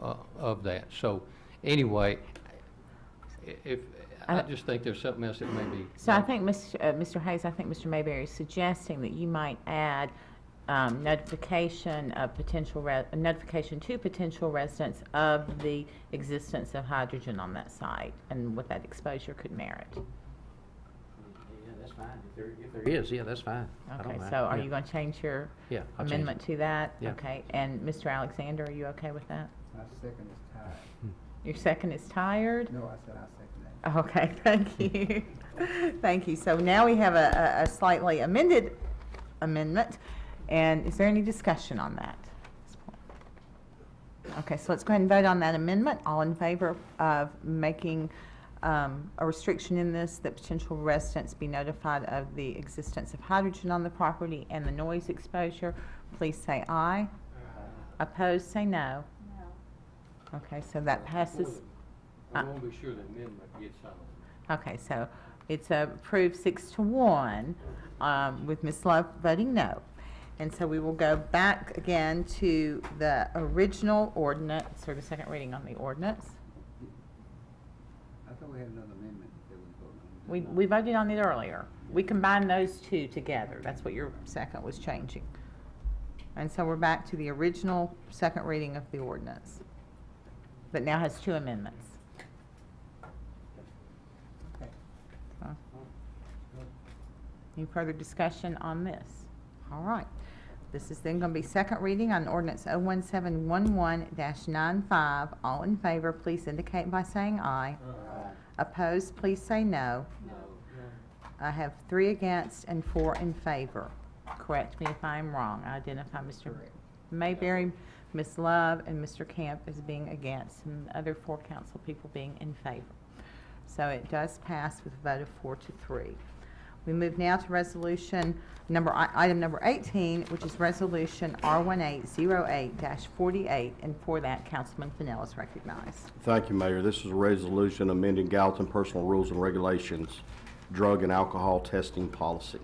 uh, of that. So anyway, i- if, I I- just think there's something else that may be. So I think, Mr. uh, Mr. Hayes, I think Mr. Mayberry is suggesting that you might add um, notification of potential, re- notification to potential residents of the existence of hydrogen on that site and what that exposure could merit. Yeah, that's fine. If there, if there is, yeah, that's fine. I don't Okay, mind. so are Yeah. you going to change your Yeah, I'll change it. amendment to that? Yeah. Okay, and Mr. Alexander, are you okay with that? My second is tied. Hmm. Your second is tired? No, I said I second that. Okay, thank you. Thank you. So now we have a, a- a slightly amended amendment, and is there any discussion on that? Okay, so let's go ahead and vote on that amendment. All in favor of making um, a restriction in this that potential residents be notified of the existence of hydrogen on the property and the noise exposure, please say aye. Opposed, say no. Okay, so that passes. I I want to be sure the amendment gets on. Okay, so it's approved six to one, um, with Ms. Love voting no. And so we will go back again to the original ordinance, sort of second reading on the ordinance. I thought we had another amendment that we voted on. We, we voted on it earlier. We combined those two together. That's what your second was changing. And so we're back to the original second reading of the ordinance, that now has two amendments. Okay. So, Any further discussion on this? All right. This is then going to be second reading on ordinance 01711-95. All in favor, please indicate by saying aye. Uh, Opposed, please say no. I have three against and four in favor. Correct me if I'm wrong. I identify Mr. Mayberry, Ms. Love, and Mr. Camp as being against, and the other four council people being in favor. So it does pass with a vote of four to three. We move now to resolution number, i- item number 18, which is resolution R1808-48, and for that, Councilman Fennell is recognized. Thank you, Mayor. This is a resolution amending Gallatin Personal Rules and Regulations, Drug and Alcohol Testing Policy.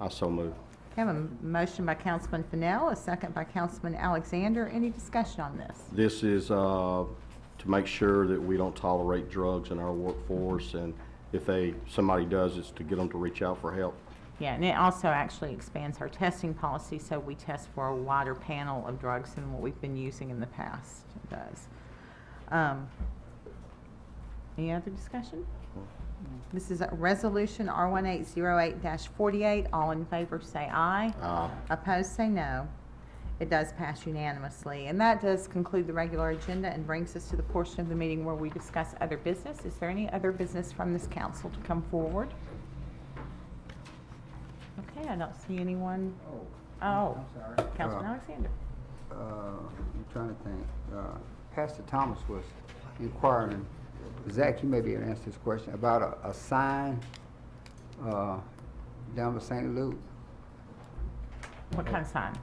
I so move. Okay, I have a motion by Councilman Fennell, a second by Councilman Alexander. Any discussion on this? This is uh, to make sure that we don't tolerate drugs in our workforce, and if they, somebody does, it's to get them to reach out for help. Yeah, and it also actually expands our testing policy, so we test for a wider panel of drugs than what we've been using in the past It does. Um, Any other discussion? This is a Resolution R1808-48. All in favor, say aye. Aye. Opposed, say no. It does pass unanimously. And that does conclude the regular agenda and brings us to the portion of the meeting where we discuss other business. Is there any other business from this council to come forward? Okay, I don't see anyone. Oh. Oh. I'm sorry. Councilman Uh, Alexander. Uh, I'm trying to think. Uh, Pastor Thomas was inquiring, Zach, you may be able to answer this question, about a, a sign, uh, down by St. Luke. What kind of sign?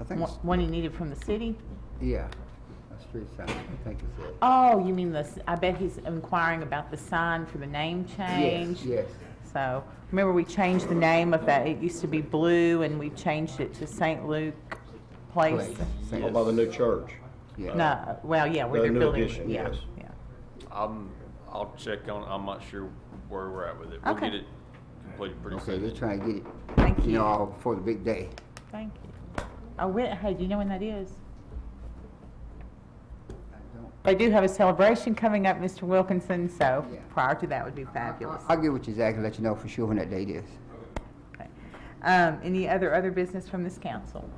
I think, One it's- one you needed from the city? yeah, a street sign, I think it's it. Oh, you mean this, I bet he's inquiring about the sign for the name change? Yes, So, remember we changed the name of that, it used to be Blue and we changed it to St. Luke yes. Place? Place, St. What about the new church? Yeah. No, well, yeah, where The they're new building, addition, yeah, yes. yeah. I'm, I'll check on, I'm not sure where we're at with it. We'll Okay. get it completed pretty Okay, soon. they're trying to get it. Thank you. know, before the big day. Thank you. Oh, wait, hey, do you know when that is? I don't They do have a celebration coming up, Mr. Wilkinson, so Yeah. prior to that would be I- fabulous. I'll get with you, Zach, and let you know for sure when that date is. Okay. Um, any other, other business from this council?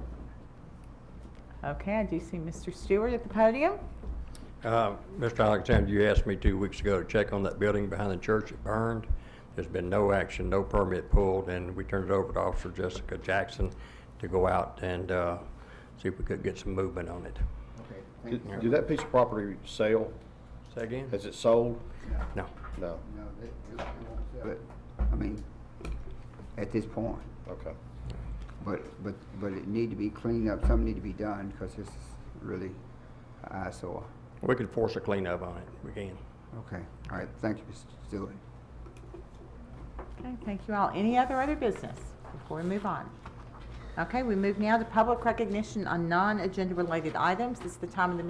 Okay, I do see Mr. Stewart at the podium. Uh, Mr. Alexander, you asked me two weeks ago to check on that building behind the church that burned. There's been no action, no permit pulled, and we turned it over to Officer Jessica Jackson to go out and uh, see if we could get some movement on it. Okay. Did did that piece of property sell? Say again? Has it sold? No. No. But, I mean, at this point, Okay. but, but, but it need to be cleaned up, something need to be done, because this is really an eyesore. We could force a cleanup on it. We can. Okay, all right, thank you, Mr. Stewart. Okay, thank you all. Any other other business before we move on? Okay, we move now to public recognition on non-agenda related items. This is the time of the